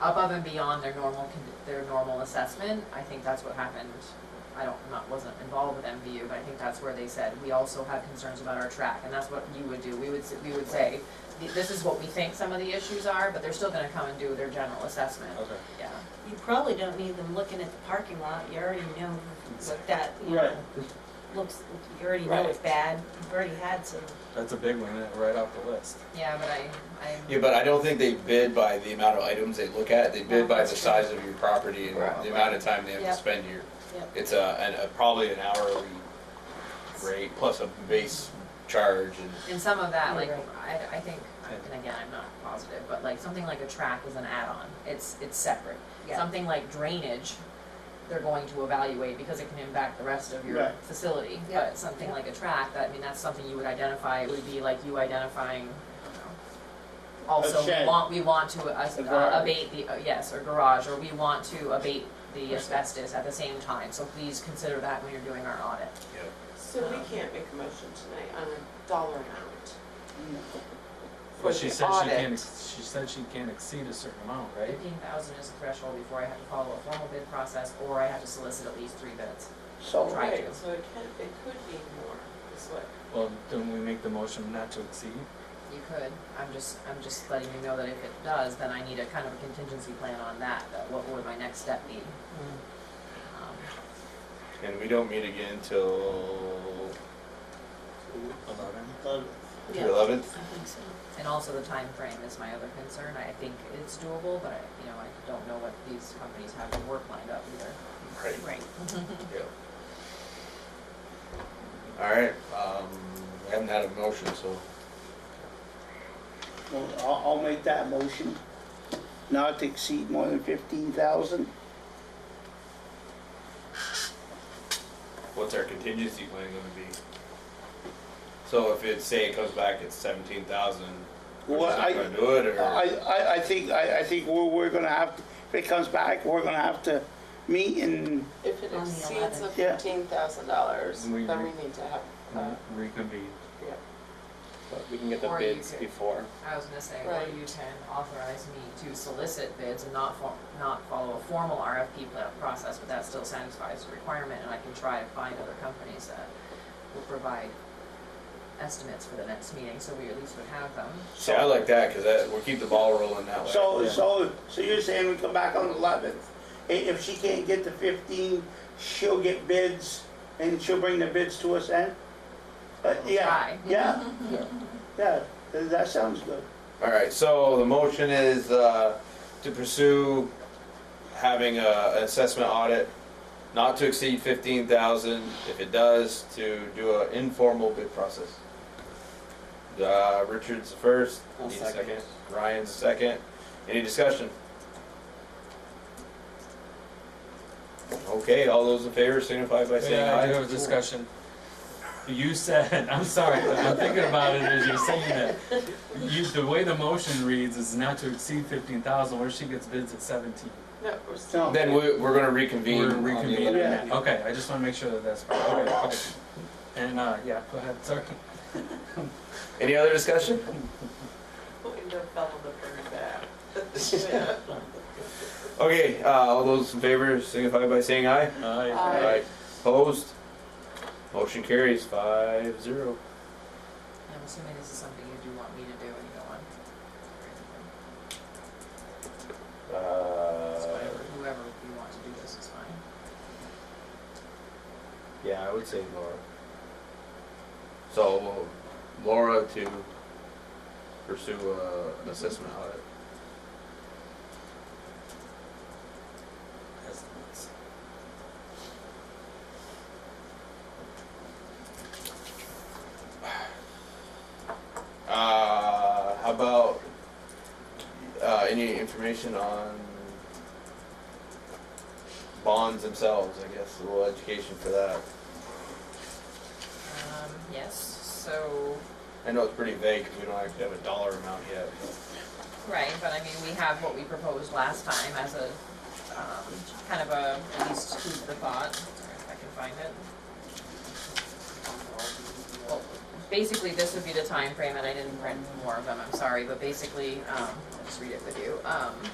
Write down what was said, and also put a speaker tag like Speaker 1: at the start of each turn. Speaker 1: above and beyond their normal, con- their normal assessment. I think that's what happened. I don't, not, wasn't involved with MVU, but I think that's where they said, we also have concerns about our track, and that's what you would do. We would, s- we would say, "Th- this is what we think some of the issues are, but they're still gonna come and do their general assessment.
Speaker 2: Okay.
Speaker 1: Yeah.
Speaker 3: You probably don't need them looking at the parking lot, you already know what that, you know, looks, you already know it's
Speaker 2: Right.
Speaker 3: bad, you've already had some.
Speaker 2: That's a big one, isn't it? right off the list.
Speaker 1: Yeah, but I, I.
Speaker 4: Yeah, but I don't think they bid by the amount of items they look at, they bid by the size of your property and
Speaker 1: Right.
Speaker 4: the amount of time they have to
Speaker 3: Yep.
Speaker 4: spend here.
Speaker 3: Yep.
Speaker 4: It's a, an- a, probably an hourly rate plus a base charge and.
Speaker 1: And some of that, like,
Speaker 3: You're
Speaker 1: I, I think, and again, I'm not positive, but like, something like a track is an add-on, it's, it's separate.
Speaker 3: Yeah.
Speaker 1: Something like drainage, they're going to evaluate because it can impact the rest of your
Speaker 5: Right.
Speaker 1: facility.
Speaker 3: Yeah.
Speaker 1: But something like a track, that, I mean, that's something you would identify, it would be like you identifying, I don't know. Also, we
Speaker 5: shed.
Speaker 1: want, we want to uh,
Speaker 5: A
Speaker 1: uh,
Speaker 5: garage.
Speaker 1: abate the, uh, yes, or garage, or we want to abate the asbestos at the same time, so please consider that when you're doing our audit.
Speaker 6: So we can't make a motion tonight on a dollar amount for
Speaker 2: But
Speaker 6: the
Speaker 2: she said she can't,
Speaker 6: audit.
Speaker 2: ex- she said she can't exceed a certain amount, right?
Speaker 1: Fifteen thousand is the threshold before I have to follow a formal bid process, or I have to solicit at least three bids.
Speaker 5: So,
Speaker 1: Try
Speaker 6: Right,
Speaker 1: to.
Speaker 6: so it can, it could be more, is what,
Speaker 2: Well, don't we make the motion not to exceed?
Speaker 1: You could, I'm just, I'm just letting you know that if it does, then I need a kind of a contingency plan on that, that what would my next step be? Um,
Speaker 4: And we don't meet again till
Speaker 2: Eleven?
Speaker 4: the eleventh?
Speaker 3: I think so.
Speaker 1: And also the time frame is my other concern, I think it's doable, but I, you know, I don't know what these companies have to work lined up either.
Speaker 4: Right.
Speaker 3: Right.
Speaker 4: All right, um, we haven't had a motion, so
Speaker 5: well, I'll, I'll make that motion, not to exceed more than fifteen thousand.
Speaker 4: what's our contingency plan gonna be? So if it, say it comes back at seventeen thousand, we're
Speaker 5: Well,
Speaker 4: just not
Speaker 5: I-
Speaker 4: gonna do it,
Speaker 5: I,
Speaker 4: or?
Speaker 5: I, I think, I, I think we're, we're gonna have, if it comes back, we're gonna have to meet and,
Speaker 6: if it
Speaker 3: On the
Speaker 6: exceeds the
Speaker 3: 11th.
Speaker 5: Yeah.
Speaker 6: fifteen thousand dollars, then we
Speaker 2: We- Mm-hmm. we-
Speaker 6: need to have, uh,
Speaker 2: Reconvene.
Speaker 6: yeah.
Speaker 7: But we can get the
Speaker 1: Or you
Speaker 7: bids
Speaker 1: could-
Speaker 7: before.
Speaker 1: I was gonna say, or
Speaker 6: Right.
Speaker 1: you can authorize me to solicit bids and not for, not follow a formal RFP pla- process, but that still satisfies the requirement, and I can try to find other companies that will provide estimates for the next meeting, so we at least would have them.
Speaker 4: See, I like that, cause that, we'll keep the ball rolling that way.
Speaker 5: so,
Speaker 2: Yeah.
Speaker 5: so, so you're saying we come back on the eleventh? If, she can't get the fifteen, she'll get bids and she'll bring the bids to us then? Uh, yeah,
Speaker 1: Try.
Speaker 5: yeah, yeah, that that sounds good.
Speaker 4: All right, so the motion is uh, to pursue having a an assessment audit not to exceed fifteen thousand. If it does, to do an informal bid process. Uh, Richard's the first,
Speaker 7: I'll
Speaker 4: Dean's
Speaker 7: second.
Speaker 4: second, Ryan's the second. Any discussion? Okay, all those in favor signify by saying
Speaker 2: Yeah, I do
Speaker 4: aye.
Speaker 2: have a discussion. You said, I'm sorry, but I'm thinking about it as you're saying that. You, the way the motion reads is not to exceed fifteen thousand, what if she gets bids at seventeen?
Speaker 6: No, we're still.
Speaker 4: Then we- we're gonna
Speaker 2: We're
Speaker 4: reconvene. on the
Speaker 2: reconvening.
Speaker 4: eleventh.
Speaker 5: Yeah.
Speaker 2: Okay, I just wanna make sure that that's, okay, okay. And, uh, yeah, go ahead, sorry.
Speaker 4: Any other discussion?
Speaker 6: Window fell on the bird back.
Speaker 4: Okay, uh, all those in favor signify by saying aye.
Speaker 2: Uh,
Speaker 6: Aye.
Speaker 4: Opposed? Motion carries five zero.
Speaker 1: And I'm assuming this is something you do want me to do, and you don't want. It's
Speaker 4: Uh,
Speaker 1: whatever, whoever you want to do this is fine.
Speaker 4: yeah, I would say Laura. So Laura to pursue uh, an assessment audit. Uh, how about uh, any information on bonds themselves? I guess a little education for that.
Speaker 1: Um, yes, so,
Speaker 4: I know it's pretty vague because we don't actually have a dollar amount yet.
Speaker 1: right, but I mean, we have what we proposed last time as a, um, kind of a, at least food for thought, if I can find it. Well, Basically, this would be the time frame, and I didn't print more of them, I'm sorry, but basically, um, I'll just read it with you. Um,